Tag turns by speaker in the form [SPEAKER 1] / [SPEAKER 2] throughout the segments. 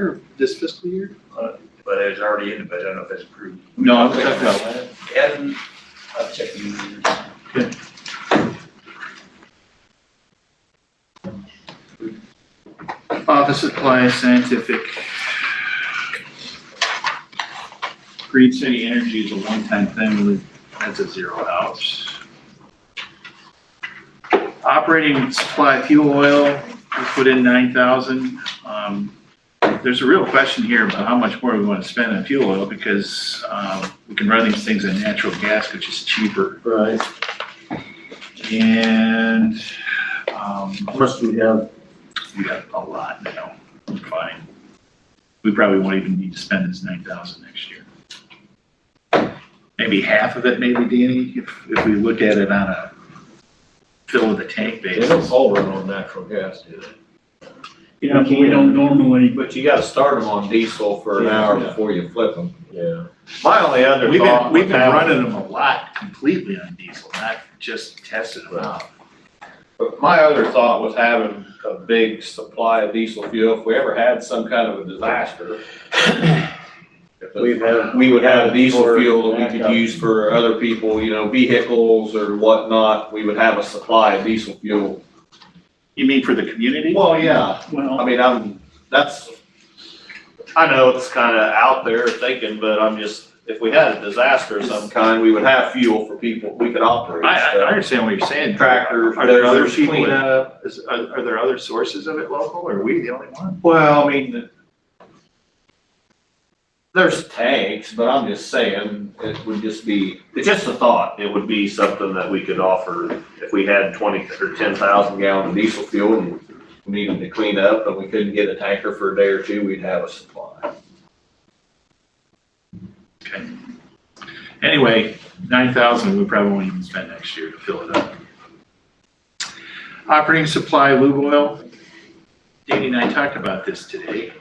[SPEAKER 1] or this fiscal year?
[SPEAKER 2] but it's already in the budget, I don't know if it's approved.
[SPEAKER 3] No, I'm talking about that.
[SPEAKER 2] Adam, I'll check the users.
[SPEAKER 3] Office Supply Scientific. Green City Energy is a one-time thing, we- that's a zero out. Operating supply fuel oil, we put in nine thousand. Um, There's a real question here about how much more we want to spend on fuel oil, because um, we can run these things on natural gas, which is cheaper.
[SPEAKER 4] Right,
[SPEAKER 3] And um,
[SPEAKER 4] how much do we have?
[SPEAKER 3] we got a lot now, We're fine. We probably won't even need to spend this nine thousand next year. Maybe half of it, maybe, Danny, if, if we look at it on a fill of the tank
[SPEAKER 4] They don't
[SPEAKER 3] basis.
[SPEAKER 4] all run on natural gas, do they?
[SPEAKER 5] Yeah, but we don't normally,
[SPEAKER 6] But you gotta start them on diesel for an hour before you flip them.
[SPEAKER 4] Yeah.
[SPEAKER 6] My only other
[SPEAKER 3] We've been,
[SPEAKER 6] thought
[SPEAKER 3] we've been
[SPEAKER 6] with that-
[SPEAKER 3] running them a lot completely on diesel, not just testing them out.
[SPEAKER 6] But my other thought was having a big supply of diesel fuel, if we ever had some kind of a disaster.
[SPEAKER 4] We've had-
[SPEAKER 6] We would have diesel fuel that we
[SPEAKER 4] Backup.
[SPEAKER 6] could use for other people, you know, vehicles or whatnot, we would have a supply of diesel fuel.
[SPEAKER 3] You mean for the community?
[SPEAKER 6] Well, yeah, I
[SPEAKER 5] well,
[SPEAKER 6] mean, I'm, that's, I know it's kinda out there thinking, but I'm just, if we had a disaster of some kind, we would have fuel for people, we could operate.
[SPEAKER 3] I, I I
[SPEAKER 6] stuff.
[SPEAKER 3] understand what you're saying.
[SPEAKER 6] Tractors,
[SPEAKER 3] Are there other
[SPEAKER 6] dozers,
[SPEAKER 3] people
[SPEAKER 6] clean-
[SPEAKER 3] that, is, are, are there other sources of it local, or are we the only one?
[SPEAKER 6] Well, I mean, the- there's tanks, but I'm just saying, it would just be,
[SPEAKER 7] It's just a thought, it would be something that we could offer if we had twenty or ten thousand.
[SPEAKER 6] thousand gallon of diesel fuel and we needed to clean up and we couldn't get a tanker for a day or two, we'd have a supply.
[SPEAKER 3] Anyway, nine thousand, we probably won't even spend next year to fill it up. Operating supply lube oil. Danny and I talked about this today.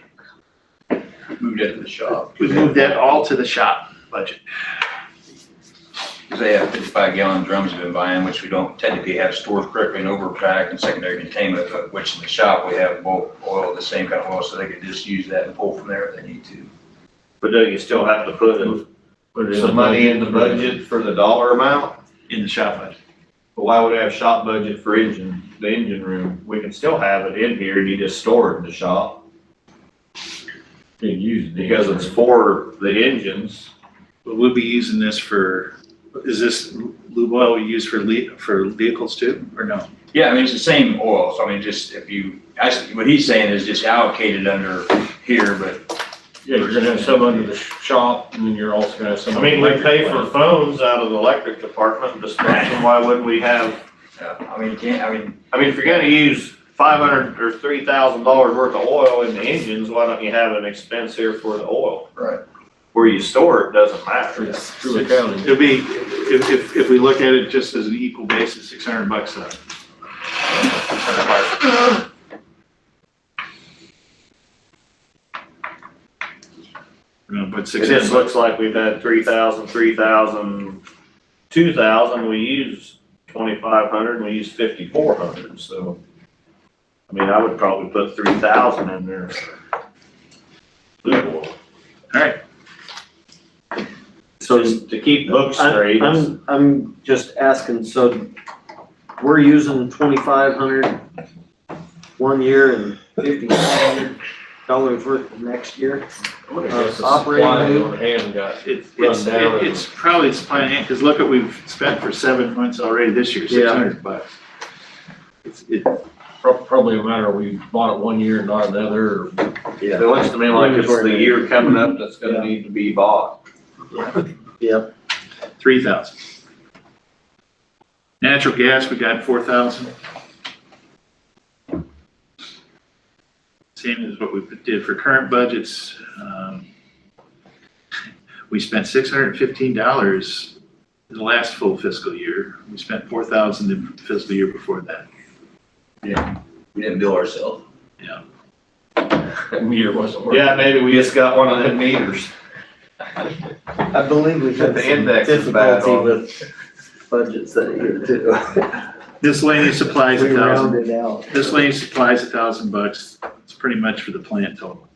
[SPEAKER 2] Moved it to the shop.
[SPEAKER 3] We moved that all to the shop budget.
[SPEAKER 2] Cause they have fifty-five gallon drums we've been buying, which we don't technically have stored correctly in overpack and secondary containment, but which in the shop, we have both oil, the same kind of oil, so they could just use that and pull from there if they need to.
[SPEAKER 7] But don't you still have to put in,
[SPEAKER 4] Put it in
[SPEAKER 6] Some money in the budget for the dollar amount,
[SPEAKER 3] In the shop budget.
[SPEAKER 6] but why would I have shop budget for engine, the engine room? We can still have it in here, you just store it in the shop
[SPEAKER 4] Being used.
[SPEAKER 6] because it's for the engines.
[SPEAKER 3] But we'll be using this for, is this lube oil we use for le, for vehicles too, or no?
[SPEAKER 2] Yeah, I mean, it's the same oil, so I mean, just if you, actually, what he's saying is just allocated under here, but
[SPEAKER 4] Yeah, you're gonna have some under the shop and then you're also gonna have some.
[SPEAKER 7] I mean, we
[SPEAKER 4] under
[SPEAKER 7] pay
[SPEAKER 4] the-
[SPEAKER 7] for phones out of the electric department, just why wouldn't we have
[SPEAKER 2] uh, I mean, you can't, I mean,
[SPEAKER 7] I mean, if you're gonna use five hundred or three thousand dollars worth of oil in the engines, why don't you have an expense here for the oil?
[SPEAKER 2] Right.
[SPEAKER 7] Where you store it doesn't matter.
[SPEAKER 4] Through through accounting.
[SPEAKER 3] It'll be, if, if, if we look at it just as an equal basis, six hundred bucks up. We're gonna put
[SPEAKER 7] It
[SPEAKER 3] six
[SPEAKER 7] just
[SPEAKER 3] hundred
[SPEAKER 7] looks
[SPEAKER 3] bucks.
[SPEAKER 7] like we've had three thousand, three thousand, two thousand, we use twenty-five hundred, and we use fifty-four hundred, so. I mean, I would probably put three thousand in there.
[SPEAKER 5] so.
[SPEAKER 7] Just to keep books straight.
[SPEAKER 5] I'm- I'm, I'm just asking, so we're using twenty-five hundred one year and fifty-five hundred dollars worth next year?
[SPEAKER 4] I wonder if
[SPEAKER 2] Uh,
[SPEAKER 4] that's a
[SPEAKER 5] Operating
[SPEAKER 4] supply
[SPEAKER 5] room.
[SPEAKER 4] on hand got
[SPEAKER 3] It's, it's,
[SPEAKER 4] Run down.
[SPEAKER 3] it's probably supply and hand, cause look what we've spent for seven months already this year, six
[SPEAKER 5] Yeah.
[SPEAKER 3] hundred bucks. It's, it,
[SPEAKER 4] prob- probably a matter, we bought it one year and not another. or-
[SPEAKER 6] It looks to me like it's the year coming up that's gonna need to be bought.
[SPEAKER 3] three thousand. Natural gas, we got four thousand. Same as what we did for current budgets. um, We spent six hundred and fifteen dollars in the last full fiscal year. We spent four thousand the fiscal year before that.
[SPEAKER 2] we didn't bill ourselves.
[SPEAKER 4] That meter wasn't working.
[SPEAKER 6] Yeah, maybe we just got one of them meters.
[SPEAKER 5] I believe we've had
[SPEAKER 6] The
[SPEAKER 5] some
[SPEAKER 6] index is bad
[SPEAKER 5] difficulty
[SPEAKER 6] on-
[SPEAKER 5] with budgets that year too.
[SPEAKER 3] Miscellaneous supplies,
[SPEAKER 5] We
[SPEAKER 3] a thousand.
[SPEAKER 5] rounded out.
[SPEAKER 3] Miscellaneous supplies, a thousand bucks. It's pretty much for the plant total.